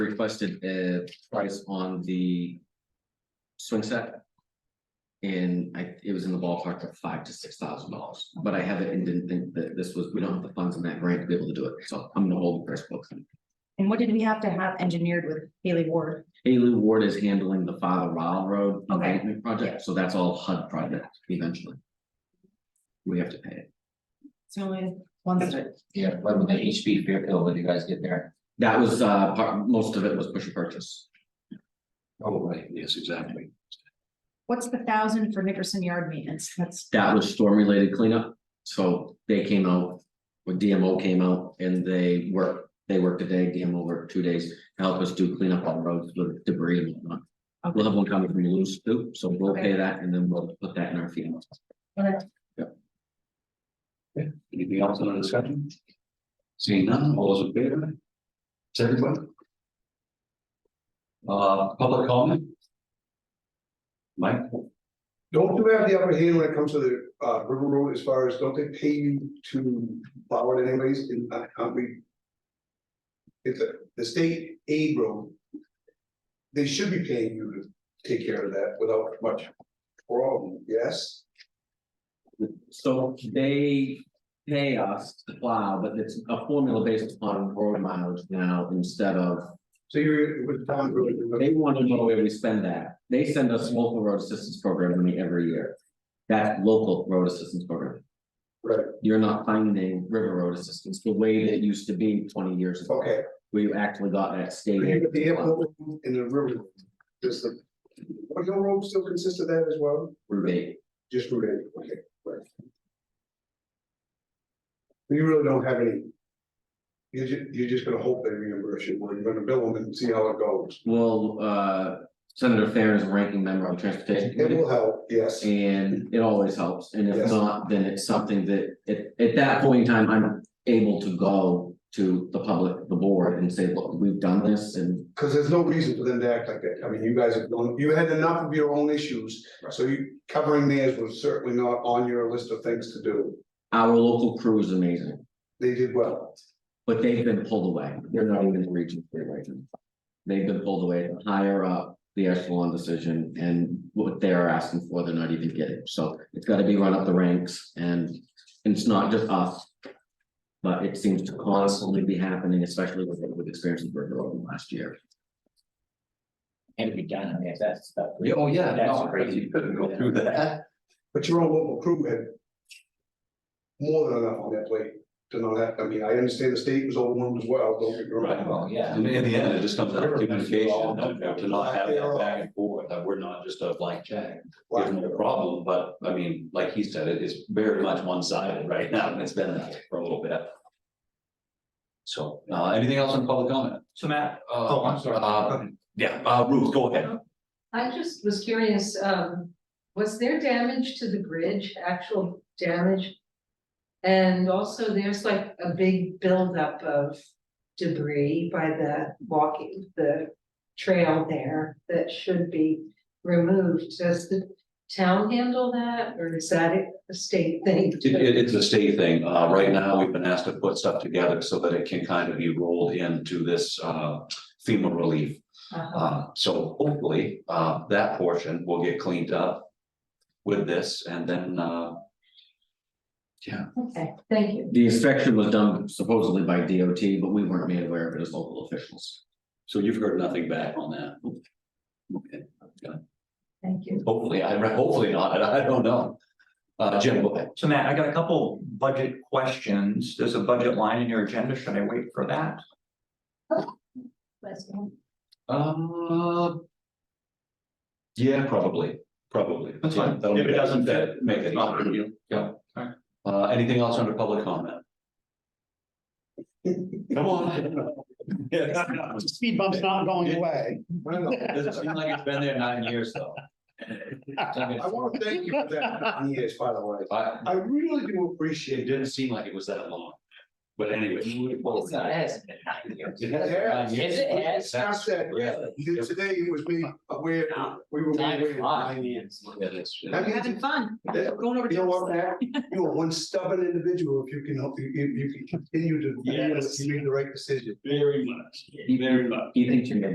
requested a price on the swing set. And I, it was in the ballpark of five to six thousand dollars, but I haven't and didn't think that this was, we don't have the funds in that grant to be able to do it, so I'm gonna hold the price book. And what did we have to have engineered with Haley Ward? Haley Ward is handling the Father Ryle Road Okay. embankment project, so that's all HUD project eventually. We have to pay it. It's the only ones that. Yeah, what with the HB Fairfield, what did you guys get there? That was, uh, part, most of it was push and purchase. Probably, Oh, yes, exactly. What's the thousand for Nickerson yard maintenance? That's, That was storm related cleanup, so they came out, when DMO came out and they worked, they worked a day, DMO worked two days. To help us do cleanup on roads with debris and whatnot. We'll have one coming from Lewis too, so we'll pay that and then we'll put that in our fee. Anything else on the discussion? Seeing none, all those in favor? Is everyone? Uh, public comment? Mike? Don't you have the upper hand when it comes to the uh River Road as far as, don't they pay you to plow it anyways in uh aren't we? It's a, the state aid road. They should be paying you to take care of that without much problem, yes? So they pay us to plow, but it's a formula based upon road mileage now instead of. So you're with town road. They want to know where we spend that. They send us local road assistance program money every year. That local road assistance program. Right. You're not finding river road assistance the way that it used to be twenty years ago. Okay, We actually got that state. but you aid. got the airport road and the river, road. does the. What your road still consist of that as well? rebate. Just Route eight, okay, right. You really don't have any. You're ju- you're just gonna hope they reimburse you, or you're gonna bill them and see how it goes. Well, uh, Senator Farren is a ranking member on transportation It committee. will help, yes, Mm. And it always helps, and if Yes. not, then it's something that, at, at that point in time, I'm able to go to the public, the board and say, look, we've done this and. cause there's no reason for them to act like that, I mean, you guys have, done- you had enough of your own issues. So you, covering theirs was certainly not on your list of things to do, Our local crew is amazing, they did well, but they've been pulled away, they're not even in the region three right now. They've been pulled away higher up the echelon decision and what they're asking for, they're not even getting, so it's gotta be run up the ranks and. and it's not just us. But it seems to constantly be happening, especially with with experience with Burger Oven last year. had to be done, I guess that's stuff. Yeah, oh, yeah. That's no, crazy. You couldn't go through that. but your own local crew had. More than enough on that plate to know that, I mean, I understand the state was overwhelmed as well, don't get me wrong. Well, yeah, and in the end, it just comes out of communication, that- to not have that back and forth, that we're not just a blank check. There's no problem, but I mean, like he said, it is very much one-sided right now, and it's been that for a little bit. So, uh, anything else in public comment? So Matt. Oh, I'm sorry. Uh, yeah, uh, Ruth, go ahead. I just was curious, um, was there damage to the bridge, actual damage? And also there's like a big buildup of debris by the walking, the trail there that should be removed. Does the town handle that or is that a state thing? It, it- it's a state thing. Uh, right now, we've been asked to put stuff together so that it can kind of be rolled into this, uh, FEMA relief. Uh-huh. Uh, so hopefully, uh, that portion will get cleaned up with this and then, uh, Okay, thank you. The inspection was done supposedly by DOT, but we weren't made aware of it as local officials. so you've heard nothing back on that. Okay, Thank you. hopefully, I, hopefully not. I I don't know. Uh, Jim, go ahead. So Matt, I got a couple budget questions. There's a budget line in your agenda. Should I wait for that? Uh. Yeah, probably, probably. That's fine. That'll If it make- doesn't fit, that Make it. it's not for Yeah. Alright. Uh, anything else under public comment? Come on. Yeah. speed bump's not going away. Doesn't seem like it's been there nine years though. I wanna thank you for that, yes, by the way. I, I really do appreciate it didn't seem like it was that long. But anyway. It's not, it hasn't been nine years. It has- Yeah. Yes, it has. That's that, Really? Did- today it was me aware, we were Time aware. flies. Yeah, that's- That We're means- having fun. that- Going over You know to. what, Matt? you are one stubborn individual if you can help, if you can continue to, you Yes. make the right decision. Very much, very much. You think you